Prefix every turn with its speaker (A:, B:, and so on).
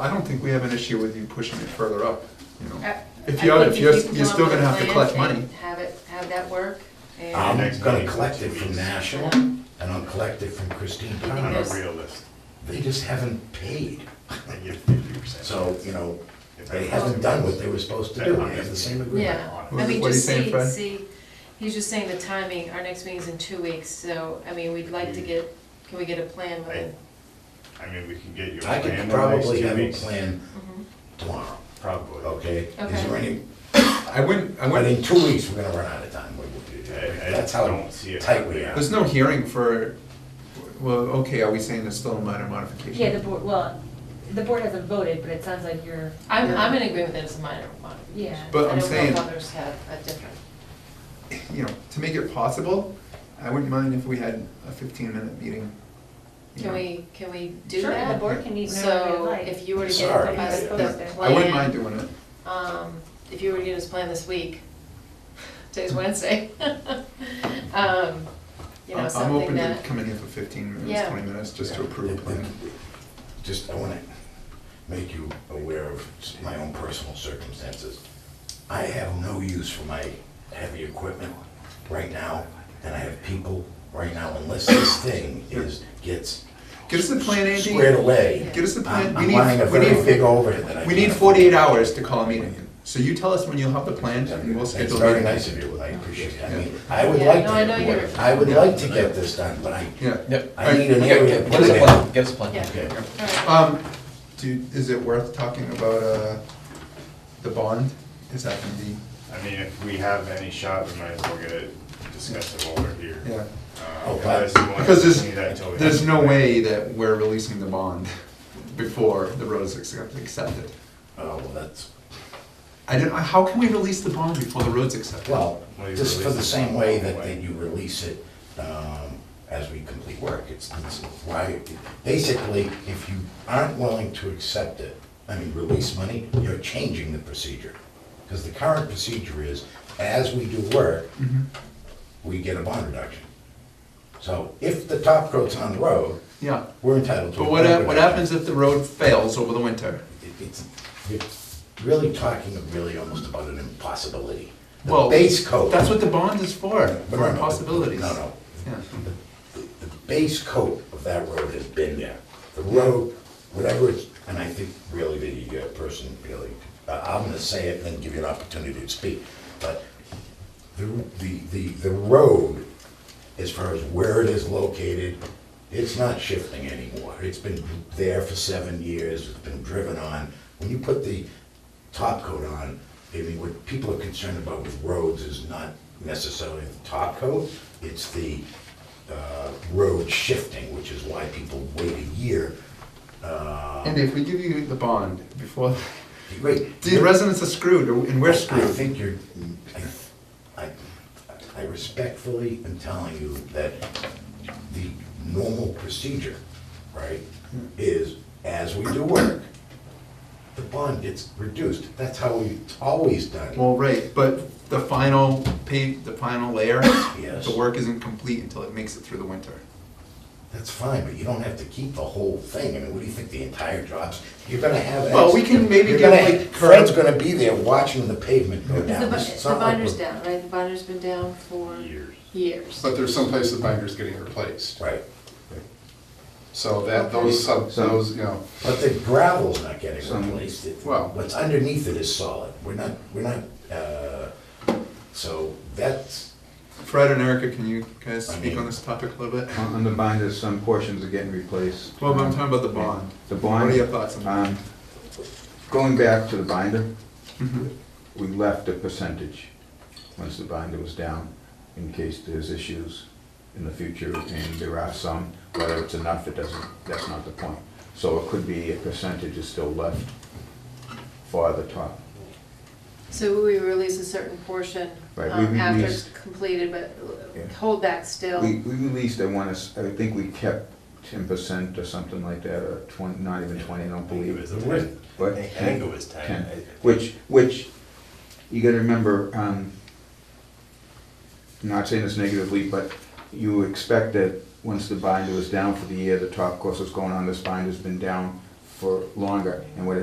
A: I don't think we have an issue with you pushing it further up, you know.
B: I-
A: If
B: I
A: you,
B: think
A: if you're,
B: can
A: you're still
B: come up
A: gonna
B: with a
A: have to
B: plan
A: collect
B: and
A: money.
B: Have it, have that work, and I
C: Um,
D: next
C: I'm gonna
D: meeting.
C: collect it from National, and I'll collect it from Christine
B: think
C: Connor.
D: I'm a
B: there's-
D: realist.
C: They just haven't paid.
D: I give fifty percent.
C: So, you know, they haven't done what they were supposed to do, they have the same agreement.
B: Yeah,
A: What-
B: I mean,
A: what are you
B: just
A: saying,
B: see,
A: Fred?
B: see, he's just saying the timing, our next meeting's in two weeks, so, I mean, we'd
C: Mm-hmm.
B: like to get, can we get a plan with it?
D: I mean, we can get you a
C: I
D: plan.
C: could
D: in the next
C: probably
D: two
C: have a
D: weeks.
C: plan
E: Mm-hmm.
C: tomorrow,
D: Probably.
C: okay? Is there
B: Okay.
C: any,
A: I wouldn't, I
C: but in
A: wouldn't,
C: two weeks, we're gonna run out of time. We- we-
D: I- I
C: That's how
D: don't see it
C: tight we are.
A: there's no hearing for, well, okay, are we saying it's still a minor modification?
E: Yeah, the board, well, the board hasn't voted, but it sounds like you're.
B: I'm,
E: you're-
B: I'm in agreement that it's a minor modification.
E: Yeah.
A: But I'm
B: I
A: saying-
B: don't know if others have a different,
A: You know, to make it possible, I wouldn't mind if we had a fifteen minute meeting. you
B: can
A: know.
B: we, can we do
E: Sure, the
B: that?
E: board can even whatever they
B: So,
E: like.
B: if you were to get
C: Sorry.
B: us the
E: Yeah.
B: plan.
A: I wouldn't mind doing it.
B: um, if you were to get his plan this week, today's Wednesday, um, you know,
A: I'm- I'm
B: something
A: open to
B: that,
A: coming in for fifteen minutes,
B: Yeah.
A: twenty minutes, just to approve a plan.
C: Just, I wanna make you aware of my own personal circumstances. I have no use for my heavy equipment right now, and I have people right now, unless this thing is, gets
A: Get us a plan, Andy.
C: squared away.
A: Get us a plan.
C: I'm
A: We
C: I'm
A: need-
C: running a
A: we
C: very
A: need-
C: big overhead that I
A: We need
C: can't
A: forty-eight
C: afford.
A: hours to call a meeting. So you tell us when you'll have the plan and we'll
C: That's
A: schedule a
C: very
A: meeting.
C: nice of you, I appreciate it. I mean, I would
B: Yeah,
C: like
B: no, I know
C: to,
B: you're-
C: I would like to get this done, but I,
A: Yeah.
F: Yep.
C: I need an
F: Yeah,
C: area to
F: yeah, Give us
C: put
F: a
C: it
F: plan,
C: in.
F: give us a plan.
B: yeah.
C: Okay.
B: All right.
A: Um, do, is it worth talking about, uh, the bond? Is that gonna be,
D: I mean, if we have any shot, we might as well get it, discuss it while we're here.
A: yeah,
D: Uh,
C: Oh,
D: unless you want to
A: because
D: continue that until we
A: there's, there's
D: have a
A: no
D: plan.
A: way that we're releasing the bond before the road's accept- accepted.
C: Oh, well, that's,
A: I don't, how can we release the bond before the road's accepted?
C: Well,
D: Well, you
C: just for
D: release
C: the
D: it
C: same
D: some
C: way
D: other
C: that,
D: way.
C: that you release it, um, as we complete work, it's, it's why, basically, if you aren't willing to accept it, I mean, release money, you're changing the procedure. Because the current procedure is, as we do work,
A: Mm-hmm.
C: we get a bond reduction. So if the top coat's on the road,
A: Yeah,
C: we're entitled to
A: but
C: a bond
A: what, hap-
C: reduction.
A: what happens if the road fails over the winter?
C: It- It's, you're really talking really almost about an impossibility. The
A: Well,
C: base coat.
A: That's what the bond is for,
C: No,
A: for
C: no, no.
A: impossibilities.
C: No, no.
A: Yeah.
C: The base coat of that road has been there. The road, whatever it's, and I think really the uh, person really, I- I'm gonna say it and then give you an opportunity to speak, but the, the, the, the road, as far as where it is located, it's not shifting anymore. It's been there for seven years, it's been driven on. When you put the top coat on, I mean, what people are concerned about with roads is not necessarily the top coat, it's the uh, road shifting, which is why people wait a year.
A: And if we give you the bond before,
C: Wait,
A: the residents are screwed and we're
C: I
A: screwed.
C: think you're, I, I- I respectfully am telling you that the normal procedure, right,
A: Hmm.
C: is as we do work, the bond gets reduced. That's how we've always done it.
A: Well, right, but the final pay, the final layer,
C: Yes.
A: the work isn't complete until it makes it through the winter.
C: That's fine, but you don't have to keep the whole thing. I mean, what do you think, the entire job's, you're gonna have.
A: Well, we can maybe
C: you're
A: give,
C: gonna-
A: like,
C: Fred's gonna be there watching the pavement go
B: The
C: down.
B: bu-
C: It's
B: the
C: not like
B: binder's
C: we're-
B: down, right? The binder's been down for
D: Years.
B: years.
G: But there's some place the binder's getting replaced,
C: Right,
G: so that, those sub, those, you know,
C: but the gravel's not getting
G: Some-
C: replaced. It-
G: well-
C: What's underneath it is solid. We're not, we're not, uh, so that's,
A: Fred and Erica, can you guys
C: I
A: speak
C: mean-
A: on this topic a little bit?
H: On on the binders, some portions are getting replaced.
A: Well, but I'm talking about the bond.
H: The bond.
A: What are your thoughts on that?
H: um, Going back to the binder,
A: Mm-hmm.
H: we left a percentage once the binder was down in case there's issues in the future, and there are some, whether it's enough, it doesn't, that's not the point. So it could be a percentage is still left for the top.
B: So we release a certain portion
H: Right, we
B: um, after
H: released-
B: it's completed, but
H: Yeah.
B: hold back still.
H: We, we released, I want to, I think we kept ten percent or something like that, or twenty, not even twenty, I don't believe.
D: I think it was 10.
H: But
D: I think it was ten.
H: Ten.
D: I- I think-
H: Which, which, you gotta remember, um, I'm not saying this negatively, but you expect that once the binder was down for the year, the top course was going on, this binder's been down for longer, and what it